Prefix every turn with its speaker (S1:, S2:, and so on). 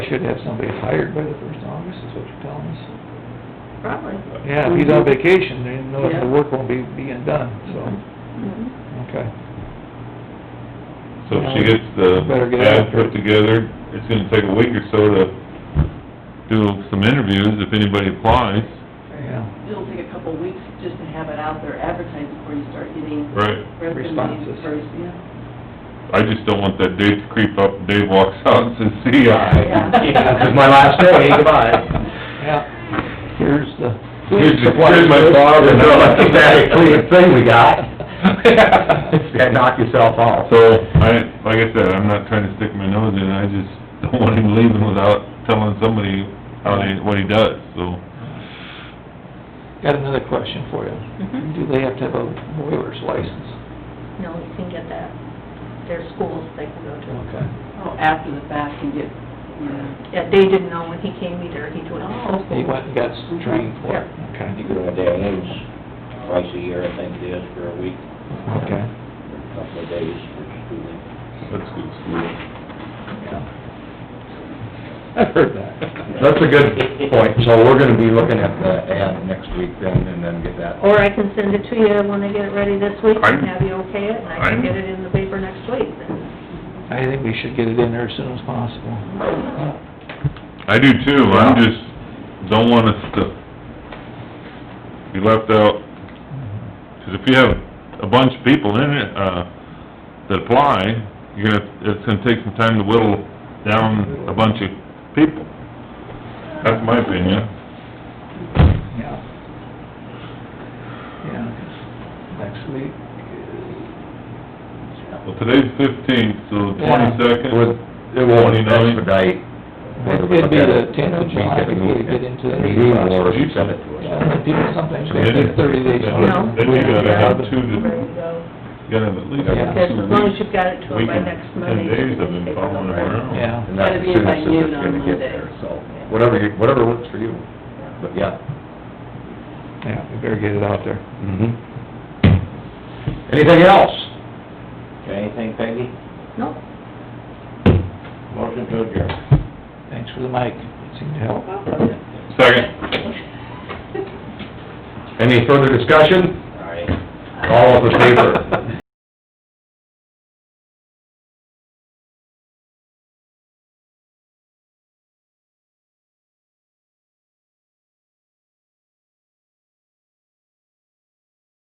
S1: should have somebody hired by the first of August, is what you're telling us. Mm-hmm.
S2: Probably.
S1: Yeah, if he's on vacation, then no-
S2: Yeah.
S1: the work won't be being done, so,
S2: Mhm.
S1: okay.
S3: So if she gets the
S1: Better get
S3: ad
S1: after it.
S3: put together, it's gonna take a week or so to do some interviews if anybody applies.
S1: Yeah,
S2: It'll take a couple of weeks just to have it out there advertised before you start getting
S3: Right.
S2: resumes
S1: Responses.
S2: first, yeah.
S3: I just don't want that date to creep up, Dave walks out and says, see ya.
S2: Yeah. Yeah,
S4: this is my last day, goodbye.
S1: yeah, here's the...
S3: Here's the- here's my father.
S4: You know, That's exactly the thing we got. Yeah, Knock yourself off.
S3: So, I, like I said, I'm not trying to stick my nose in, I just don't want him leaving without telling somebody how he, what he does, so.
S1: Got another question for you.
S5: Mhm.
S1: Do they have to have a boiler's license?
S5: No, you can get that. There's schools they can go to.
S1: Okay.
S2: Oh, after the fact and get, yeah.
S5: Yeah, they didn't know when he came either, he told "Oh, us.
S1: He went and got trained for it,
S6: And
S1: okay,
S6: you can only day and age, twice a year, I think it is, for a week,
S1: okay,
S6: or a couple of days for schooling.
S3: That's good school.
S1: yeah. I've heard that.
S4: That's a good point, so we're gonna be looking at the ad next week then, and then get that.
S5: Or I can send it to you when I get it ready this week,
S3: I'm-
S5: and have you okay it, and I
S3: I'm-
S5: can get it in the paper next week.
S1: I think we should get it in there as soon as possible.
S3: I do too, I'm just, don't want us to be left out, 'cause if you have a bunch of people in it, uh, that apply, you're gonna, it's gonna take some time to whittle down a bunch of people. That's my opinion.
S1: Yeah. Yeah, 'cause next week
S3: Well, today's fifteenth, so
S1: Yeah.
S4: It
S3: twenty-second,
S4: would, it won't
S3: 29.
S4: expedite.
S1: is...
S4: whether we
S1: It'd
S4: look
S1: be
S4: at
S1: the
S4: it
S1: tenth of
S4: in
S1: July
S4: a week at the
S1: before we
S4: meeting.
S1: get into the
S4: Meeting
S1: meeting
S4: or
S1: process.
S4: if you send it to us.
S1: Yeah, People sometimes they take thirty days.
S3: Yeah.
S5: No.
S3: Then you gotta have two to-
S5: Ready to go.
S3: you gotta have at least two
S1: Yeah.
S5: Yes, as long as
S3: weeks.
S5: you've got it to her by
S3: Weekend,
S5: next
S3: ten
S5: Monday.
S3: days I've
S5: you can
S3: been
S5: take it
S3: following
S5: over.
S3: around.
S1: Yeah.
S4: And that's
S2: Gotta be
S4: as soon
S2: by
S4: as
S2: noon
S4: it's
S2: on
S4: gonna get
S2: Monday.
S4: there, so, whatever you, whatever works for you, but yeah.
S1: Yeah, we better get it out there.
S4: Mhm. Anything else?
S6: Got anything, Peggy?
S5: No,
S6: Motion to adjourn.
S1: Thanks for the mic, it seemed to help.
S3: Second.
S4: Any further discussion?
S6: Aye.
S4: All in favor?